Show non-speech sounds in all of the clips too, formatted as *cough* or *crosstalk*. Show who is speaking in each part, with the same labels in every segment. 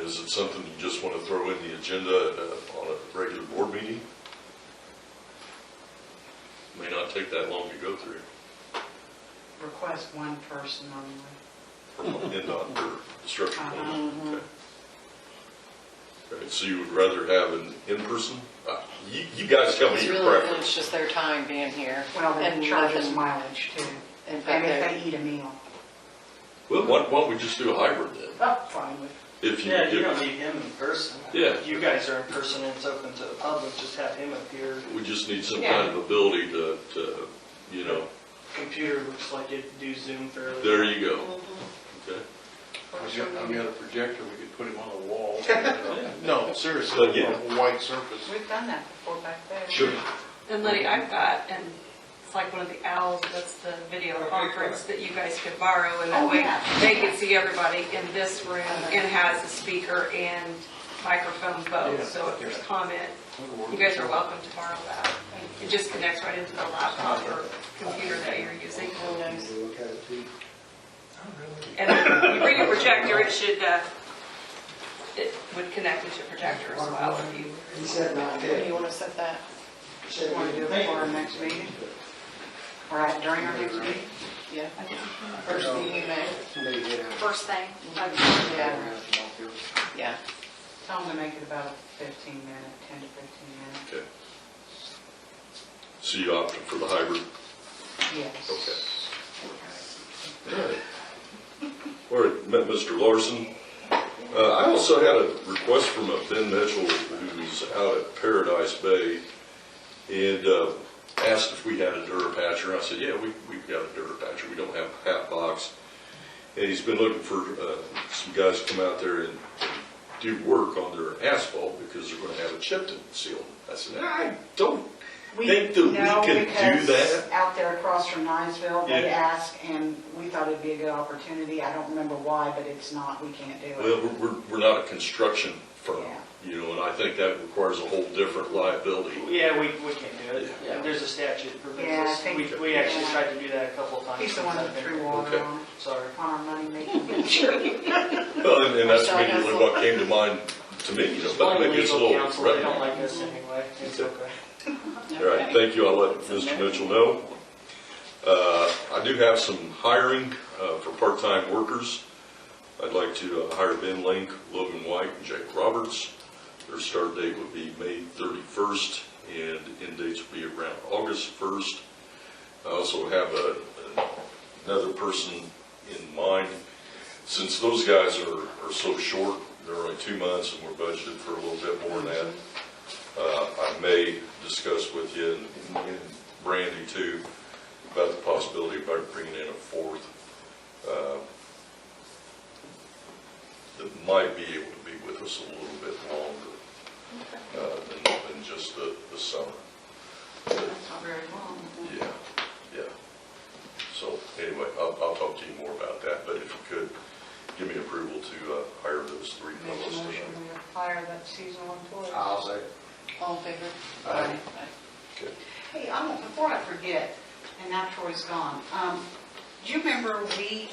Speaker 1: Is it something you just want to throw in the agenda at a- on a regular board meeting? May not take that long to go through,
Speaker 2: request one person only.
Speaker 1: from NDOT or the structure plan.
Speaker 2: Uh-huh.
Speaker 1: Okay, So you would rather have an in-person? Uh, You, you guys tell me
Speaker 3: It's
Speaker 1: your
Speaker 3: really, it's
Speaker 1: preference.
Speaker 3: just their time being here.
Speaker 2: Well,
Speaker 3: and
Speaker 2: they charge us
Speaker 3: nothing-
Speaker 2: mileage too,
Speaker 3: In
Speaker 2: and
Speaker 3: fact,
Speaker 2: if
Speaker 3: they're-
Speaker 2: they eat a meal,
Speaker 1: Well, why why don't we just do a hybrid then?
Speaker 2: that's *laughs* fine with,
Speaker 1: If you,
Speaker 4: Yeah, you don't
Speaker 1: if
Speaker 4: need him in person.
Speaker 1: Yeah.
Speaker 4: You guys are in person, and it's open to the public, just have him appear.
Speaker 1: we just need some
Speaker 3: Yeah.
Speaker 1: kind of ability to, to, you know,
Speaker 4: Computer looks like it do Zoom fairly.
Speaker 1: there you go. Okay.
Speaker 5: I've got- I've got a projector, we could put him on a wall. No,
Speaker 1: But,
Speaker 5: seriously,
Speaker 1: yeah.
Speaker 5: on a white surface.
Speaker 2: we've done that before back there.
Speaker 1: Sure.
Speaker 6: And Lenny, I've got, and it's like one of the owls, that's the video conference that you guys could borrow, and
Speaker 2: Oh,
Speaker 6: that way
Speaker 2: yeah.
Speaker 6: they could see everybody in this room, and has a speaker and microphone both,
Speaker 5: Yeah,
Speaker 6: so if there's
Speaker 5: yeah.
Speaker 6: comment, you guys are welcome to borrow that. It just connects right into the laptop or computer that you're using. And if you bring a projector, it should, uh, it would connect with your projector as well if you.
Speaker 7: He said not
Speaker 3: do
Speaker 7: yet.
Speaker 3: you want to set that?
Speaker 7: He said
Speaker 2: Want to do it for our next meeting, or at- during our next meeting?
Speaker 3: Yeah. First thing you know,
Speaker 7: They get out.
Speaker 8: first thing. like,
Speaker 3: yeah, yeah.
Speaker 2: Tell them to make it about a fifteen minute, ten to fifteen
Speaker 1: Okay. So you opted for the hybrid?
Speaker 2: minute, yes.
Speaker 1: Okay. All right, met Mr. Larson. Uh, I also had a request from a Ben Mitchell who's out at Paradise Bay and uh, asked if we had a Durapatcher. I said, yeah, we, we've got a Durapatcher. We don't have a hat box. And he's been looking for uh, some guys to come out there and do work on their asphalt because they're going to have it chipped and sealed. I said, I don't think that we
Speaker 2: no,
Speaker 1: can do
Speaker 2: because
Speaker 1: that.
Speaker 2: Out there across from Niceville, they
Speaker 1: Yeah.
Speaker 2: asked, and we thought it'd be a good opportunity, I don't remember why, but it's not, we can't do it.
Speaker 1: Well, we're- we're, we're not a construction firm, you know, and I think that requires a whole different liability.
Speaker 4: Yeah, we, we can't do it.
Speaker 3: Yeah.
Speaker 4: There's a statute that
Speaker 2: Yeah, I
Speaker 4: prevents us.
Speaker 2: think-
Speaker 4: We, we actually
Speaker 2: yeah.
Speaker 4: tried to do that a couple of times.
Speaker 2: He's the
Speaker 4: since
Speaker 2: one
Speaker 4: I've
Speaker 2: that
Speaker 4: been
Speaker 2: threw
Speaker 4: here.
Speaker 2: water
Speaker 1: Okay.
Speaker 2: on,
Speaker 4: Sorry.
Speaker 2: on our money making.
Speaker 1: Well, and- and that's
Speaker 3: Sorry,
Speaker 1: immediately
Speaker 3: Hansel.
Speaker 1: what came to mind to me, you know,
Speaker 4: Just
Speaker 1: but
Speaker 4: one
Speaker 1: maybe it's a
Speaker 4: legal
Speaker 1: little
Speaker 4: counsel, they don't
Speaker 1: threatening.
Speaker 4: like us anyway. It's
Speaker 1: Okay.
Speaker 4: okay.
Speaker 1: All right, thank you, I'll let Mr. Mitchell know. Uh, I do have some hiring uh, for part-time workers. I'd like to uh, hire Ben Link, Logan White, and Jake Roberts. Their start date would be May 31st, and end dates would be around August 1st. I also have a- another person in mind. Since those guys are are so short, they're only two months, and we're budgeted for a little bit more than that, uh, I may discuss with you and- and Brandy too about the possibility of bringing in a fourth uh, that might be able to be with us a little bit longer uh, than than just the the summer.
Speaker 2: Not very long.
Speaker 1: Yeah, yeah. So anyway, I'll, I'll talk to you more about that, but if you could, give me approval to uh, hire those three
Speaker 2: Make a
Speaker 1: fellows
Speaker 2: motion
Speaker 1: tonight.
Speaker 2: we fire that seasonal employee.
Speaker 7: I'll say.
Speaker 3: All in favor?
Speaker 7: Aye.
Speaker 1: Okay.
Speaker 2: Hey, I want, before I forget, and now Troy's gone, um, do you remember we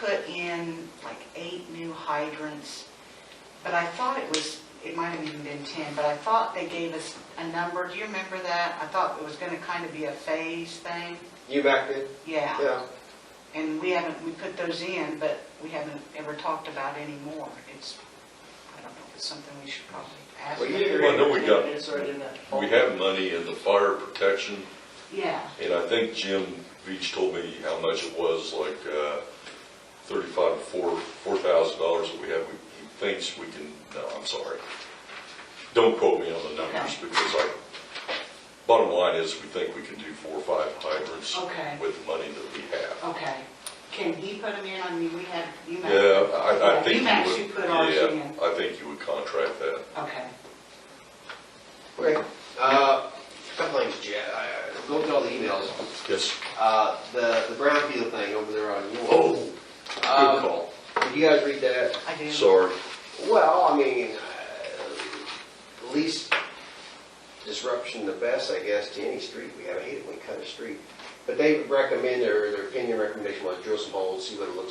Speaker 2: put in like eight new hydrants? But I thought it was, it might have even been 10, but I thought they gave us a number. Do you remember that? I thought it was gonna kind of be a phase thing.
Speaker 7: You back then?
Speaker 2: Yeah.
Speaker 7: Yeah.
Speaker 2: And we haven't, we put those in, but we haven't ever talked about any more. It's, I don't know, it's something we should probably ask.
Speaker 7: Well, you
Speaker 1: did. Well, no, we got-
Speaker 4: It's already in that.
Speaker 1: We have money in the fire protection,
Speaker 2: Yeah.
Speaker 1: and I think Jim Beach told me how much it was, like uh, thirty-five, four, four thousand dollars that we have. He thinks we can, no, I'm sorry. Don't quote me on the numbers,
Speaker 2: Okay.
Speaker 1: because I, bottom line is, we think we can do four or five hydrants
Speaker 2: Okay. Oh,
Speaker 1: with the money that we have.
Speaker 2: Okay. Can he put them in? I mean, we had, you might.
Speaker 1: Yeah, I, I
Speaker 2: Yeah,
Speaker 1: think you would.
Speaker 2: you actually put ours
Speaker 1: yeah,
Speaker 2: in.
Speaker 1: I think you would contract that.
Speaker 2: Okay.
Speaker 9: Okay, uh, couple things, Chad, I, I, go through all the emails,
Speaker 1: Yes.
Speaker 9: uh, the, the brownfield thing over there on York. Uh,
Speaker 1: Oh, good call.
Speaker 9: Did you guys read that?
Speaker 2: I do.
Speaker 1: Sorry.
Speaker 9: Well, I mean, uh, least disruption the best, I guess, to any street. We have, I hate it when we cut a street. But they recommend, or their opinion recommendation was drill some holes, see what it looks